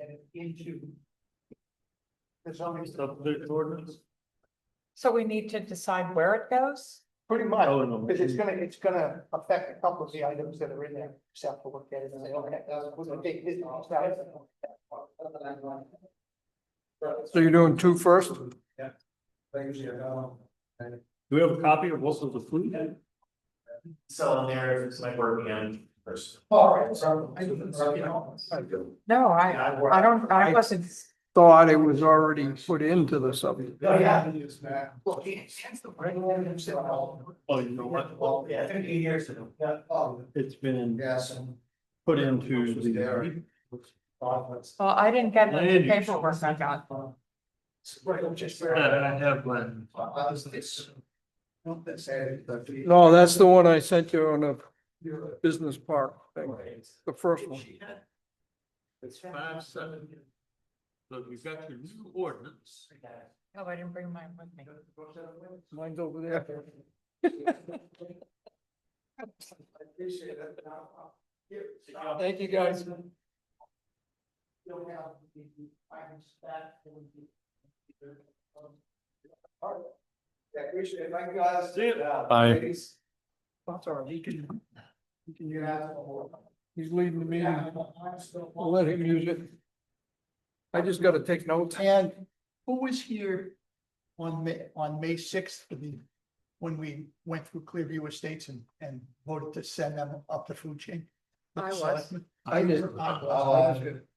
and into the zoning. Subdivision ordinance? So we need to decide where it goes? Pretty much, Oh, no. because it's gonna, it's gonna affect a couple of the items that are in there, except for look at it and say, okay, Oh, that's, we're gonna take this off. So you're doing two first? Do we have a copy of Wilson's of Fleet? So there is my work in person. All right, so. I can- you know, No, I, I I work. don't, I wasn't, Thought it was already put into the subject. Oh, yeah. Well, he- since the brand new himself. Oh, you know what? Well, yeah, fifty years ago. Yeah, oh, It's been yes, and put into the. office. well, I didn't get the Land use. paperwork I got. Right, just. Yeah, I have one. Uh, this- Not that sad, but the- No, that's the one I sent you on the business park thing, the first one. It's five seven. So we've got your new ordinance. Oh, I didn't bring mine with me. Mine's over there. Thank you, guys. You'll have the items that will be- Yeah, appreciate it. Thank you guys. See you. Yeah, Bye. thanks. Oh, That's all right. He can, he can You use it. guys are welcome. He's leading the meeting. I'm still- I'll let him use it. I just gotta take notes. And who was here on May, on May sixth, when we went through Clearview Estates and, and voted to send them up the food chain? I was. Selectmen? I did. Uh,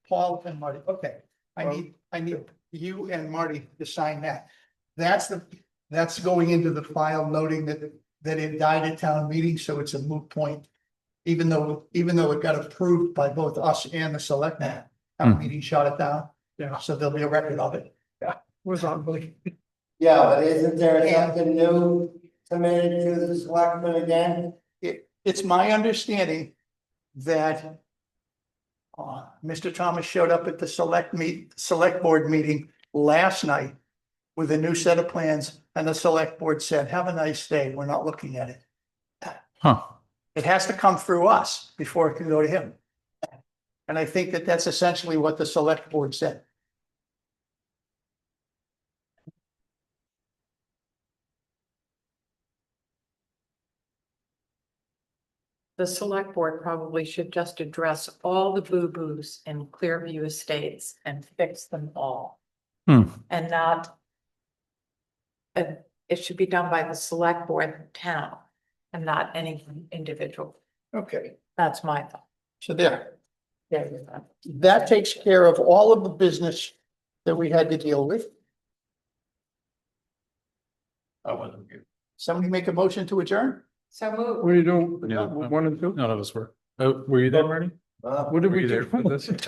Paul and Marty, okay, I need, I need you and Marty to sign that. That's the, that's going into the file noting that, that it died at town meeting, so it's a moot point. Even though, even though it got approved by both us and the selectmen, town meeting shot it down. Yeah. So there'll be a record of it. Was on, but Yeah, but isn't there something new submitted to the selectmen again? It's my understanding that uh, Mr. Thomas showed up at the select meet, select board meeting last night with a new set of plans and the select board said, have a nice day. We're not looking at it. Huh. It has to come through us before it can go to him. And I think that that's essentially what the select board said. The select board probably should just address all the boo-boos in Clearview Estates and fix them all. Hmm. And not. And it should be done by the select board in town and not any individual. Okay. That's my thought. So there. There you go. that takes care of all of the business that we had to deal with. I wasn't here. Somebody make a motion to adjourn? So move. what are you doing? Yeah. One and two? None of us were. Oh, were you there, Marty? Huh? What did Were we you do? there for this?